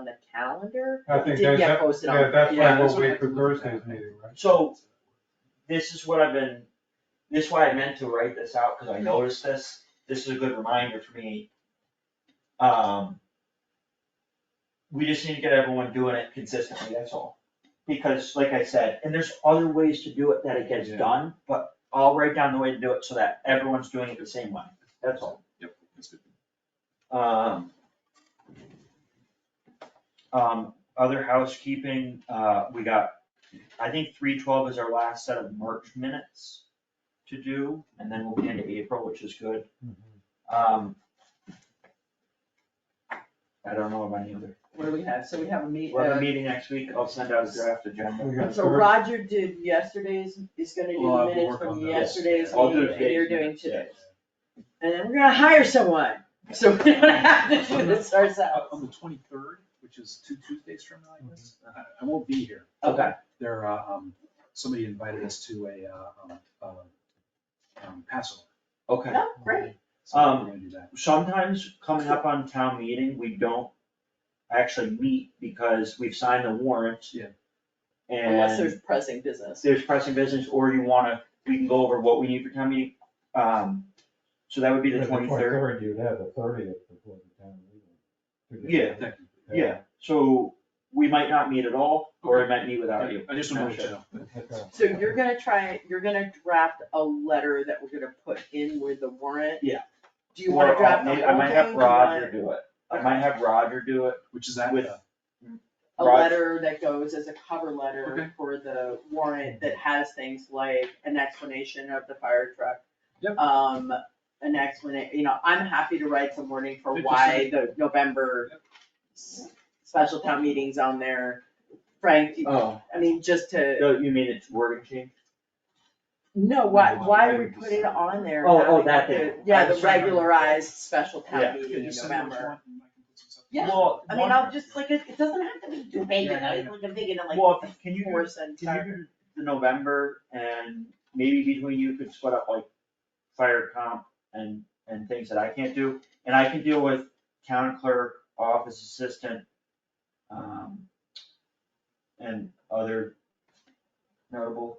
on the calendar, I think Did that's, get posted on- yeah, that's yeah, why we'll that's what I wait for can look at. Thursday's meeting, right? So, this is what I've been, this is why I meant to write this out, cause I noticed this, this is a good reminder for me. Um. We just need to get everyone doing it consistently, that's all, because like I said, and there's other ways to do it that it gets Yeah. done, but I'll write down the way to do it so that everyone's doing it the same way, that's all. Yep, that's good. Um. Um, other housekeeping, uh, we got, I think three twelve is our last set of March minutes to do, and then we'll be into April, which is good. Um. I don't know about any other, what do we have, so we have a meet, we'll have uh, a meeting next week, I'll send out a draft agenda. We got so Thurs- Roger did yesterday's, is gonna do Well, I the will minutes work on from those. yesterday's I'll do meeting, and today's you're doing minutes, today. And then we're gonna hire someone, so we're gonna have to do this Uh, ourselves. On the twenty-third, which is two Tuesdays from now, I guess, I, Mm-hmm. I won't be here. Okay. There, uh, um, somebody invited us to a, uh, um, uh, um, Passover. Okay, No, Oh, great, So we're Um, gonna do that. sometimes coming up on town meeting, we don't actually meet because we've signed the warrant. Yeah. And. unless there's pressing business. there's pressing business, or you wanna, we can go over what we need for town meeting, um, so that would be By the twenty-third. You'd have the thirtieth before the town meeting. Yeah. Technically. Yeah, so we might not meet at all, or I might meet without you. I just wanted to know. Okay. So you're gonna try, you're gonna draft a letter that we're gonna put in with the warrant? Yeah. Do you wanna Or, uh, draft the whole maybe thing? I might have Do you want Roger do it, I might have Roger do it, Which is that, With- uh, A Roger. letter that goes as a cover letter Okay. for the warrant that has things like an explanation of the fire truck. Yep. Um, an explanation, you know, I'm happy to write some wording for Good to why the November Yep. s- special town meetings on there. Frank, you- oh, I mean, just to. no, you mean it's wording change? No, why, No, why do I we would put it just- on there? Oh, oh, having that the- thing. I Yeah, the was trying to- regularized special Yeah. town yeah, meeting in just send me what you November. want and I can put some stuff Yeah. together. Well, I mean, I'll just, like, it, it doesn't have to be too big, Yeah, and I yeah, like, I'm thinking of Well, like can you, four do- cents. can you do the November, and maybe between you could split up like fire comp and, and things that I can't do, and I can deal with town clerk, office assistant, um, and other notable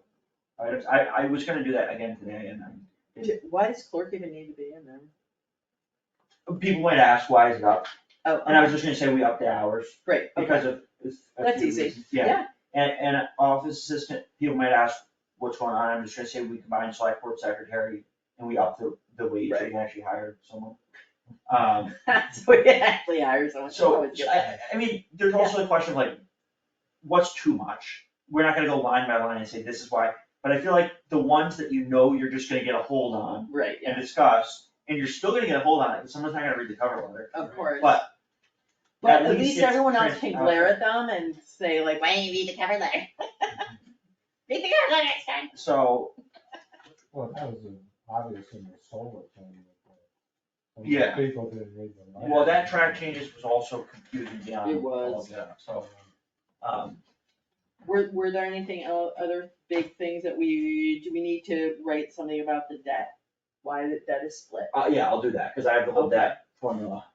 items, I, I was gonna do that again today, and I, Do- Why does clerk even need to be in there? people might ask, why is it up? Oh, And I was just gonna say we upped the hours, great, okay, um, because of. it's a That's few easy. reasons. Yeah, yeah, and, and an office assistant, people might ask what's going on, I'm just gonna say we combined select board secretary and we upped the, the wage, and we actually hired someone. Um, so we actually hire someone. so, Always good. I, I mean, there's also the question of like, what's too much? We're not gonna go line by line and say this is why, but I feel like the ones that you know you're just gonna get a hold on Right, yeah, and discuss, and you're still gonna get a hold on it, because someone's not gonna read the cover letter. of course. But But at at least least it's everyone else can transparent. glare at them and say like, why didn't you read the cover letter? Read the cover letter next time. So, Well, that was obvious in the solar thing. but- Yeah. People didn't read the. letter. Well, that track changes was also confusing beyond It was. all of that, so, um, Were, were there anything el- other big things that we, do we need to write something about the debt? Why the debt is split? uh, yeah, I'll do that, cause I have the whole debt formula.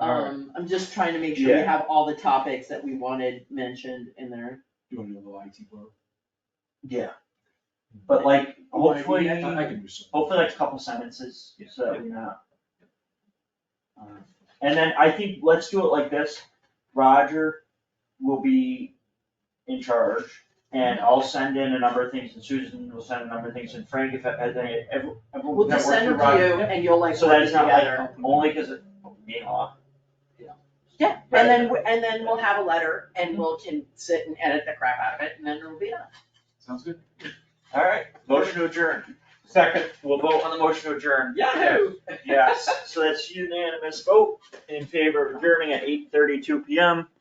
Alright. Um, I'm just trying to make sure we Yeah. have all the topics that we wanted mentioned in there. You wanna do a little IT blurb? Yeah. But like, You wanna do hopefully, that? I I can do some. hopefully like a couple sentences, Yeah. so that we're not. Uh, And then I think, let's do it like this, Roger will be in charge, and I'll send in a number of things, and Susan will send a number of things, and Frank, if, if, any- everyone. We'll just send them everyone- to you and you'll like So work that is it not like, together. only because it, being off. Yeah, and then, we- and then we'll have a letter and we'll can sit and edit the crap out of it and then it'll be done. Sounds good. Alright, motion to adjourn. Second. We'll vote on the motion to adjourn. Yes, so that's unanimous vote in favor of adjourning at eight thirty-two PM.